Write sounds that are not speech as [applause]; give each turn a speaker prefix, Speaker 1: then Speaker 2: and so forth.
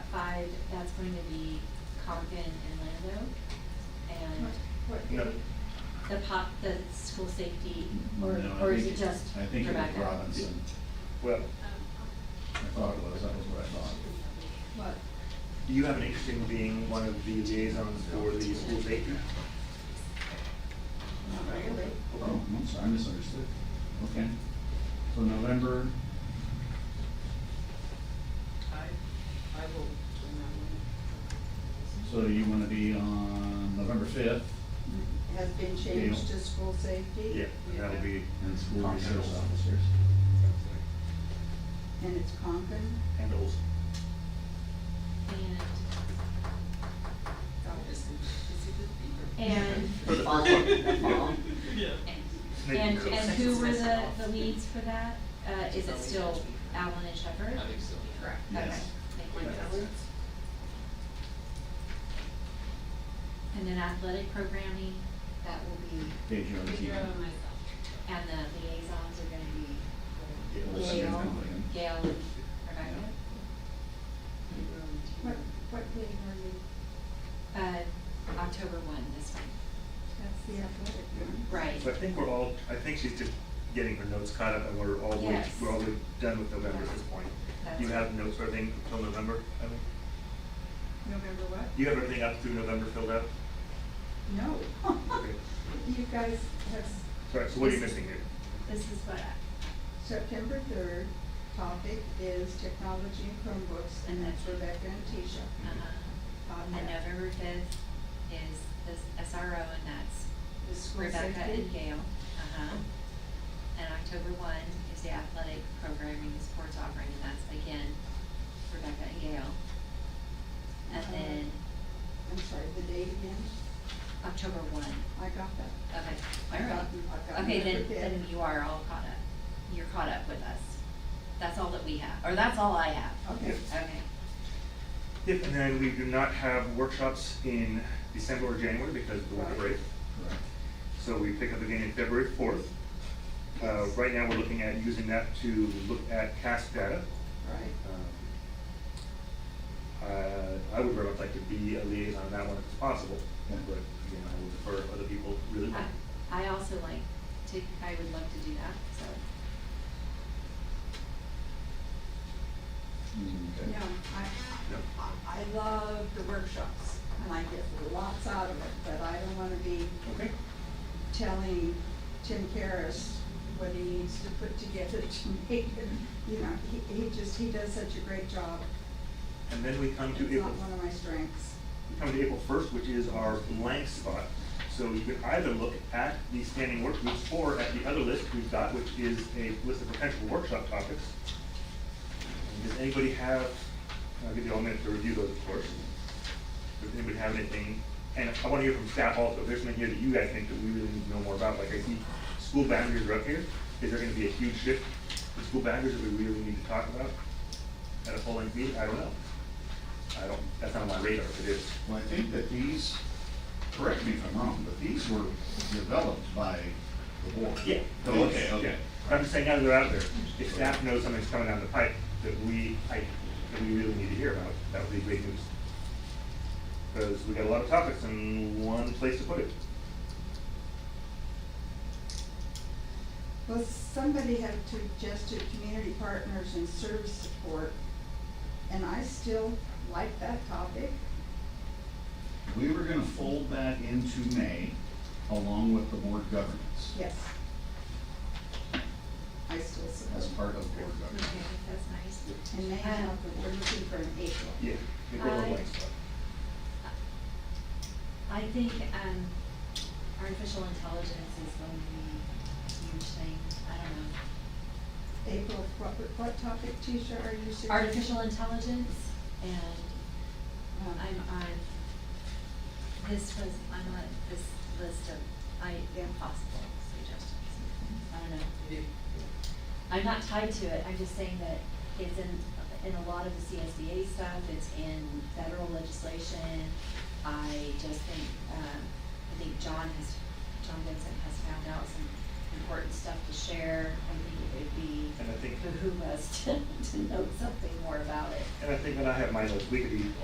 Speaker 1: side, that's going to be Compton and Lando. And
Speaker 2: No.
Speaker 1: the pop, the school safety, or,
Speaker 3: No, I
Speaker 1: or is
Speaker 3: think
Speaker 1: it just Rebecca?
Speaker 3: I think it was Robinson.
Speaker 2: Well,
Speaker 3: I thought it was, that was what I thought.
Speaker 4: What?
Speaker 2: you have an interest in being one of the liaisons for the school safety?
Speaker 4: Not really.
Speaker 3: Oh, I'm sorry, I misunderstood. Okay. So November,
Speaker 5: I, I will, win that one.
Speaker 3: so you want to be on November fifth
Speaker 4: Has been changed to school safety?
Speaker 2: Yeah, that'll be,
Speaker 3: and school resource officers.
Speaker 4: And it's Concord?
Speaker 2: handles.
Speaker 1: And,
Speaker 2: For the fall,
Speaker 5: Yeah.
Speaker 1: and, and, and who were the, the leads for that? Uh, is it still Allen and Shepherd?
Speaker 6: I think so.
Speaker 1: Correct. Okay.
Speaker 3: Yes.
Speaker 1: Thank you. And then athletic programming, that will be,
Speaker 3: Pedro and Keegan.
Speaker 1: and the liaisons are gonna be
Speaker 2: Yeah,
Speaker 3: Wilson and Cunningham.
Speaker 1: Gail and Rebecca.
Speaker 5: um,
Speaker 4: What, what meeting are you,
Speaker 1: Uh, October one, this one.
Speaker 4: that's the athletic one?
Speaker 1: Right.
Speaker 2: So I think we're all, I think she's just getting her notes caught up and we're all, we're
Speaker 1: Yes.
Speaker 2: all done with November at this point. You have notes for everything till November, I mean,
Speaker 4: November what?
Speaker 2: you have everything up through November filled out?
Speaker 4: No. [laughs]
Speaker 2: Okay.
Speaker 4: You guys have s-
Speaker 2: Sorry, so what are you missing here?
Speaker 1: This is what, uh, I-
Speaker 4: September third, topic is technology and Chromebooks, and that's Rebecca and Tisha. Um,
Speaker 1: uh-huh.
Speaker 4: on
Speaker 1: And
Speaker 4: that.
Speaker 1: November fifth is the SRO, and that's
Speaker 4: The school
Speaker 1: Rebecca
Speaker 4: safety.
Speaker 1: and Gail. Uh-huh. And October one is the athletic programming, and sports offering, and that's again Rebecca and Gail. And
Speaker 4: Uh-huh.
Speaker 1: then
Speaker 4: I'm sorry, the date again?
Speaker 1: October one,
Speaker 4: I got that.
Speaker 1: okay,
Speaker 4: I
Speaker 1: all right.
Speaker 4: got- I got
Speaker 1: Okay, then,
Speaker 4: November fifth.
Speaker 1: then you are all caught up. You're caught up with us. That's all that we have, or that's all I have.
Speaker 4: Okay.
Speaker 1: Okay.
Speaker 2: Yep, and then we do not have workshops in December or January because of the winter break.
Speaker 3: Correct.
Speaker 2: So we pick up again in February fourth. Uh, right now, we're looking at using that to look at CAS data.
Speaker 4: Right.
Speaker 2: Um, Uh, I would very much like to be a liaison on that one if it's possible, but again, I would prefer other people really.
Speaker 1: I- I also like to, I would love to do that, so.
Speaker 3: Mm, okay.
Speaker 4: No, I,
Speaker 2: No.
Speaker 4: I- I love the workshops, and I get lots out of it, but I don't wanna be
Speaker 2: Okay.
Speaker 4: telling Tim Karas what he needs to put together [laughs] to make it, you know, he, he just, he does such a great job.
Speaker 2: And then we come
Speaker 4: It's
Speaker 2: to April.
Speaker 4: not one of my strengths.
Speaker 2: We come to April first, which is our blank spot. So you can either look at the standing work groups or at the other list we've got, which is a list of potential workshop topics. And Does anybody have, I'll give you all a minute to review those, of course. Does anybody have anything? And I want to hear from staff also, if there's something here that you guys think that we really need to know more about, like I see school boundaries are up here. Is there gonna be a huge shift in school boundaries that we really need to talk about at a full-length meeting? I don't know. I don't, that's not on my radar, if it is.
Speaker 3: Well, I think that these, correct me if I'm wrong, but these were developed by the board.
Speaker 2: Yeah.
Speaker 3: Oh, Okay, okay.
Speaker 2: But I'm just saying, now that they're out there, if staff knows something's coming down the pipe that we, I, that we really need to hear about, that would be great news. Because we got a lot of topics in one place to put it.
Speaker 4: Well, somebody had suggested community partners and service support, and I still like that topic.
Speaker 3: We were gonna fold that into May along with the board governance.
Speaker 4: Yes. I still
Speaker 3: As
Speaker 4: support.
Speaker 3: part of board
Speaker 1: Okay,
Speaker 3: governance.
Speaker 1: that's nice.
Speaker 4: And they
Speaker 1: Um,
Speaker 4: have, but we're looking for an April.
Speaker 2: Yeah. they go
Speaker 1: I-
Speaker 2: away, so.
Speaker 1: I think, um, artificial intelligence is going to be a huge thing, I don't know.
Speaker 4: April, what, what topic, Tisha, are you suggesting?
Speaker 1: Artificial intelligence, and
Speaker 4: Um,
Speaker 1: I'm on, this was, I'm on this list of, I, possible suggestions. I don't know. I'm not tied to it, I'm just saying that it's in, in a lot of the CSDA stuff, it's in federal legislation. I just think, um, I think John has, John Vincent has found out some important stuff to share. I think it would be
Speaker 2: And I think,
Speaker 1: [laughs] behoove us to, to know something more about it.
Speaker 2: and I think when I have my notes, we could be